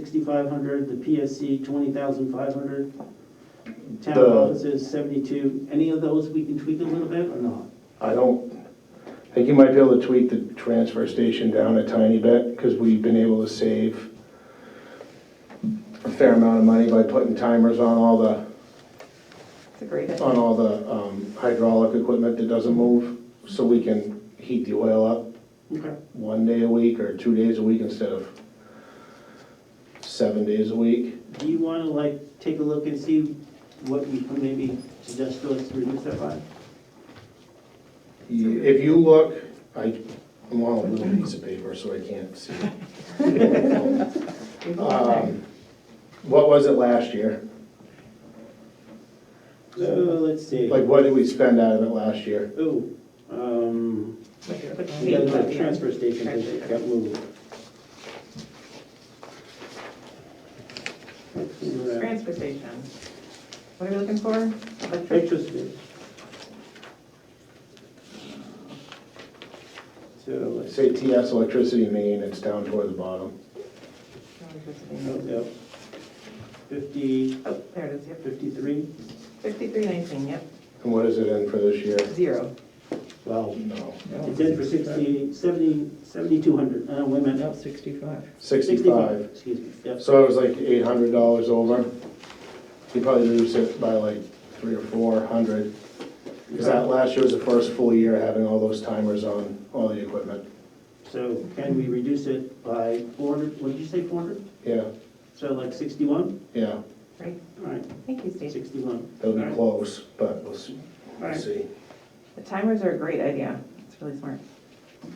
sixty-five hundred, the PSC twenty thousand five hundred, town The- offices seventy-two, any of those we can tweak a little bit or not? I don't, I think you might be able to tweak the transfer station down a tiny bit, because we've been able to save a fair amount of money by putting timers on all the, It's a great idea. on all the um, hydraulic equipment that doesn't move, so we can heat the oil up Okay. one day a week or two days a week instead of seven days a week. Do you wanna like, take a look and see what you can maybe suggest to us to reduce that by? You- If you look, I, I'm on a little piece of paper, so I can't see. We've all been Um, What was it last year? So, let's see. Uh, Like, what did we spend out of it last year? Oh, um, there. Like, put we got tape on the the transfer station that Transfer. got moved. Let's see end. what I- Transfer station. What are we looking for? Electric. Pictures. please. So let's Say TS electricity main, it's down toward the bottom. Oh, yep. Fifty, Oh, there it is, yep. fifty-three? Fifty-three nineteen, yep, And what is it in for this year? zero. Wow. No, It's in for sixty, seventy, seventy-two hundred, uh, wait a minute, No, no, sixty-five. sixty-five. excuse me, yep. So it was like eight hundred dollars over. You probably reduced it by like three or four hundred. Because that last year was the first full year having all those timers on all the equipment. So can we reduce it by four hundred, what did you say, four hundred? Yeah, So like sixty-one? yeah, Great, All right, thank you, Steve. sixty-one. it'll be All right. close, but we'll see. All We'll right. see. The timers are a great idea, it's really smart.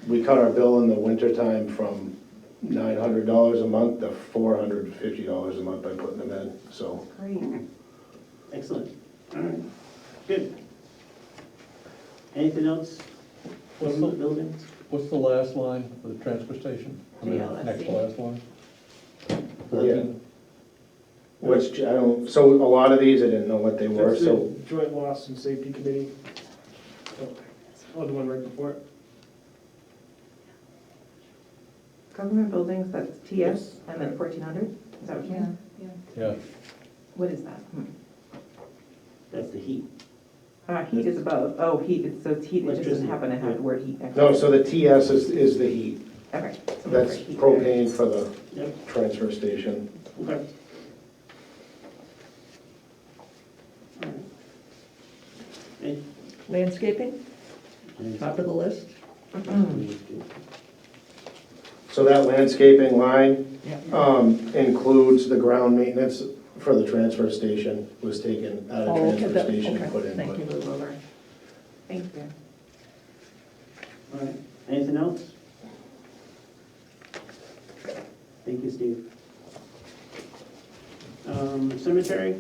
We cut our bill in the wintertime from nine hundred dollars a month to four hundred and fifty dollars a month by putting them in, so. Great. Excellent, all right, good. Anything else? What's From the the- Buildings? What's the last line for the transfer station? I mean, Yeah, let's Next see. to last line? Yeah. Which, I don't, so a lot of these, I didn't know what they were, That's so, the joint loss and safety committee. Oh, the one right before it. Government buildings, that's TS, and then fourteen hundred, is that what you mean? Yeah, What is that? Hmm. That's the heat. Uh, heat is above, oh, heat, it's, so it's heat, it just Electricity, doesn't happen to have the word heat next to it. no, so the TS is, is the heat. Okay. so we'll That's put heat there. propane for the Yep, transfer station. okay. All right. Any- Landscaping, any- top of the list? Mm-hmm. So that landscaping line, Yeah. um, includes the ground maintenance for the transfer station, was taken out of Oh, okay, transfer that- station okay, and put in. Thank you, Move over. Thank you. All right, anything else? Thank you, Steve. Um, cemetery?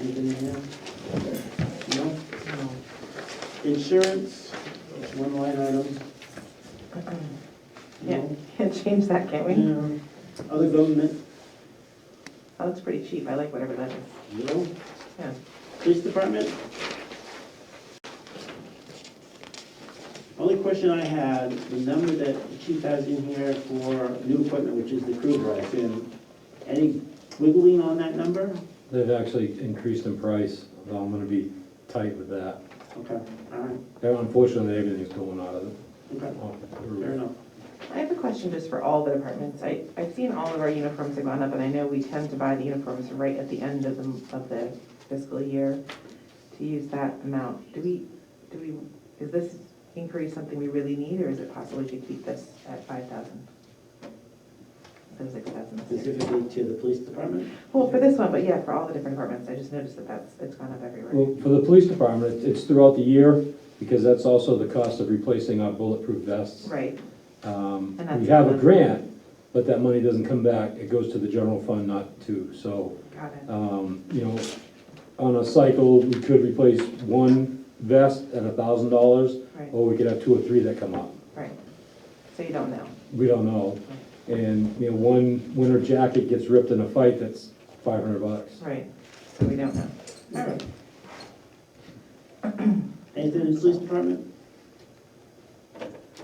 Anything in there? No? Insurance, that's one line item. Mm-hmm. Yeah, No? can't change that, can we? No. Um, Other government, That looks pretty cheap, I like whatever that is. no. Yeah. Police department? Only question I had, the number that the chief has in here for new equipment, which is the cruiser, I assume, any wiggling on that number? They've actually increased in price, though I'm gonna be tight with that. Okay, all right, Unfortunately, everything's going out of the, okay, off the fair roof. enough. I have a question just for all the departments. I, I've seen all of our uniforms have gone up, and I know we tend to buy the uniforms right at the end of the, of the fiscal year to use that amount. Do we, do we, is this increase something we really need, or is it possible we could keep this at five thousand? It was six thousand this year. Specifically to the police department? Well, for this one, but yeah, for all the different departments, I just noticed that that's, it's gone up everywhere. Well, for the police department, it's- it's throughout the year, because that's also the cost of replacing our bulletproof vests. Right, Um, And that's We have a another- grant, but that money doesn't come back, it goes to the general fund, not to, so, got it. um, you know, on a cycle, we could replace one vest at a thousand dollars, Right, or we could have two or three that come up. right. So you don't know. we don't know. And, you know, one winter jacket gets ripped in a fight, that's five hundred bucks. Right, so we don't know. All right. Anything in the police department?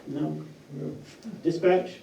No? Dispatch?